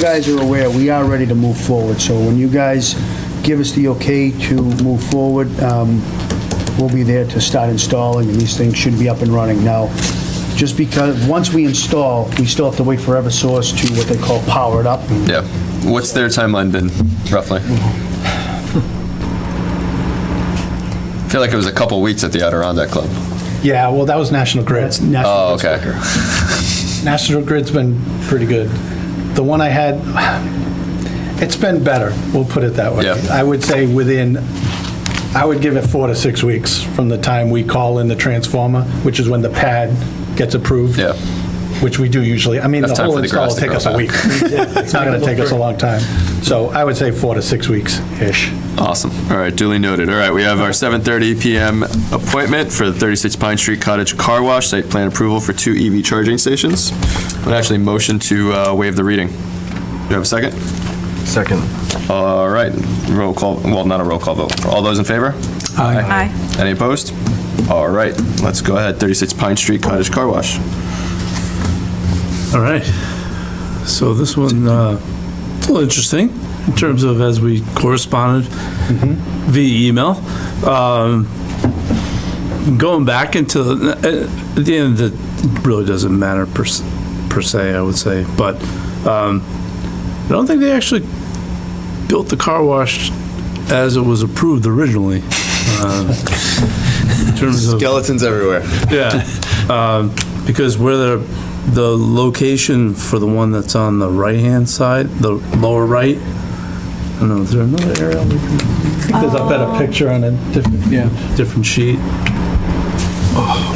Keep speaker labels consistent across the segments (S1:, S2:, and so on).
S1: guys are aware, we are ready to move forward, so when you guys give us the okay to move forward, um, we'll be there to start installing, and these things should be up and running. Now, just because, once we install, we still have to wait for EverSource to what they call power it up.
S2: Yeah. What's their timeline been, roughly? I feel like it was a couple weeks at the Adirondack Club.
S3: Yeah, well, that was National Grid.
S1: That's national.
S2: Oh, okay.
S3: National Grid's been pretty good. The one I had, it's been better, we'll put it that way.
S2: Yeah.
S3: I would say within, I would give it four to six weeks from the time we call in the transformer, which is when the pad gets approved.
S2: Yeah.
S3: Which we do usually. I mean, the
S2: Enough time
S3: whole
S2: for the
S3: install will
S2: grass to
S3: take
S2: grow
S3: us a
S2: back.
S3: week. It's not going to take us a long time. So I would say four to six weeks-ish.
S2: Awesome. All right, duly noted. All right, we have our 7:30 PM appointment for the 36 Pine Street Cottage Car Wash, site plan approval for two EV charging stations. Would actually motion to uh, waive the reading. Do you have a second?
S4: Second.
S2: All right, roll call, well, not a roll call vote. All those in favor?
S5: Aye.
S2: Any opposed? All right, let's go ahead. 36 Pine Street Cottage Car Wash.
S6: All right. So this one, uh, it's a little interesting in terms of as we corresponded via email. Um, Going back into, the- at the end, it really doesn't matter per s- per se, I would say, but um, I don't think they actually built the car wash as it was approved originally. um, in terms of-
S2: Skeletons everywhere.
S6: yeah, um, because where the, the location for the one that's on the right-hand side, the lower right, I don't know, is there another area? we can-
S3: There's a better picture on a different,
S6: Different sheet.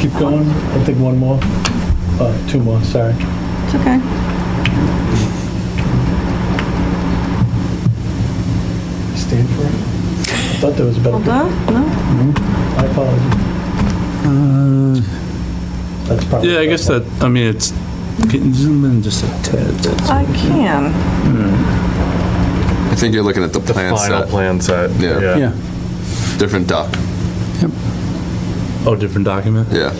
S3: keep going. I think one more, Uh, two more, sorry.
S5: It's okay.
S3: Stand for it? I thought there was a better.
S5: Hold on. No.
S3: I apologize.
S4: Uh,
S3: That's probably.
S6: Yeah, I guess that, I mean, it's, can you zoom in just a tad. bit?
S5: I can.
S2: I think you're looking at the
S4: The
S2: plan
S4: final
S2: set,
S4: plan set.
S2: Yeah. different doc,
S6: Oh, different document?
S2: yeah.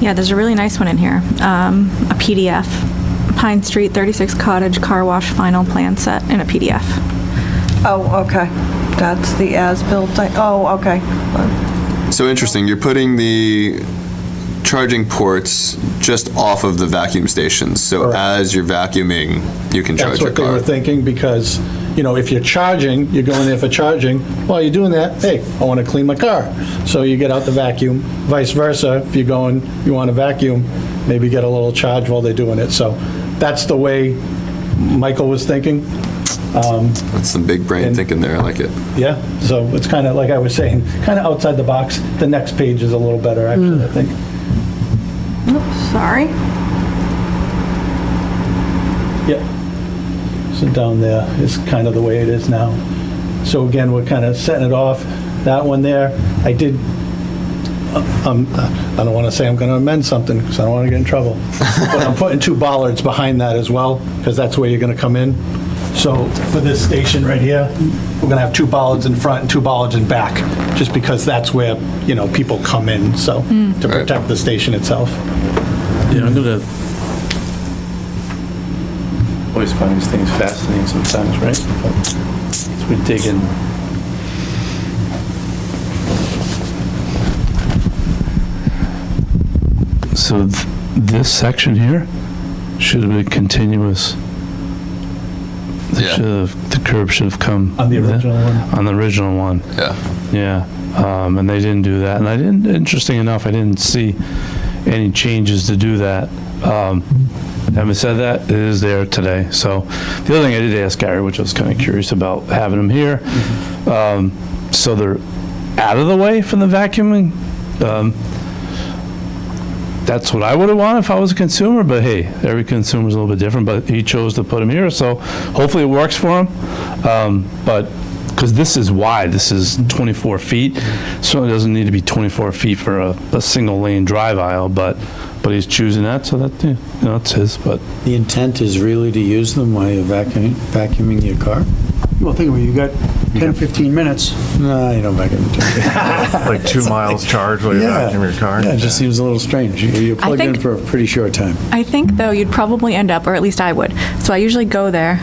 S5: Yeah, there's a really nice one in here. Um, a PDF. Pine Street 36 Cottage Car Wash Final Plan Set in a PDF.
S7: Oh, okay. That's the as-built thing. Oh, okay.
S2: So interesting, you're putting the charging ports just off of the vacuum stations, so
S3: Correct.
S2: as you're vacuuming, you can charge
S3: That's
S2: your
S3: what they were
S2: car.
S3: thinking, because, you know, if you're charging, you're going there for charging, while you're doing that, hey, I want to clean my car. So you get out the vacuum, vice versa, if you're going, you want to vacuum, maybe get a little charge while they're doing it. So that's the way Michael was thinking.
S2: That's some big brain
S3: And-
S2: thinking there, I like it.
S3: Yeah, so it's kind of, like I was saying, kind of outside the box. The next page is a little better, actually, I think.
S5: Sorry.
S3: Yep. So down there is kind of the way it is now. So again, we're kind of setting it off. That one there, I did, um, I don't want to say I'm going to amend something because I don't want to get in trouble. But I'm putting two bollards behind that as well because that's where you're going to come in. So for this station right here, we're going to have two bollards in front and two bollards in back, just because that's where, you know, people come in, so, to
S2: Right.
S3: protect the station itself.
S6: Yeah, I'm gonna,
S8: Always find these things fascinating sometimes, right? So we dig in.
S6: so th- this section here should have been continuous. It
S2: Yeah.
S6: should have- The curb should have come.
S3: On the
S6: there,
S3: original one.
S6: On the original one.
S2: Yeah,
S6: Yeah, um, and they didn't do that, and I didn't, interesting enough, I didn't see any changes to do that. Um, having said that, it is there today, so, the other thing I did ask Gary, which I was kinda curious about having him here, um, so they're out of the way from the vacuuming, um, that's what I would've wanted if I was a consumer, but hey, every consumer's a little bit different, but he chose to put him here, so hopefully it works for him. Um, But, because this is wide, this is 24 feet, certainly doesn't need to be 24 feet for a, a single lane drive aisle, but, but he's choosing that, so that, you know, it's his, but,
S9: The intent is really to use them while you're vacuuming, vacuuming your car?
S1: Well, think of it, you got 10, 15 minutes.
S9: No, you don't vacuum it.
S4: Like two miles charge while you're
S9: Yeah.
S4: back in your car.
S9: Yeah, it just seems a little strange. You- You're plugged in
S5: think-
S9: for a pretty short time.
S5: I think, though, you'd probably end up, or at least I would. So I usually go there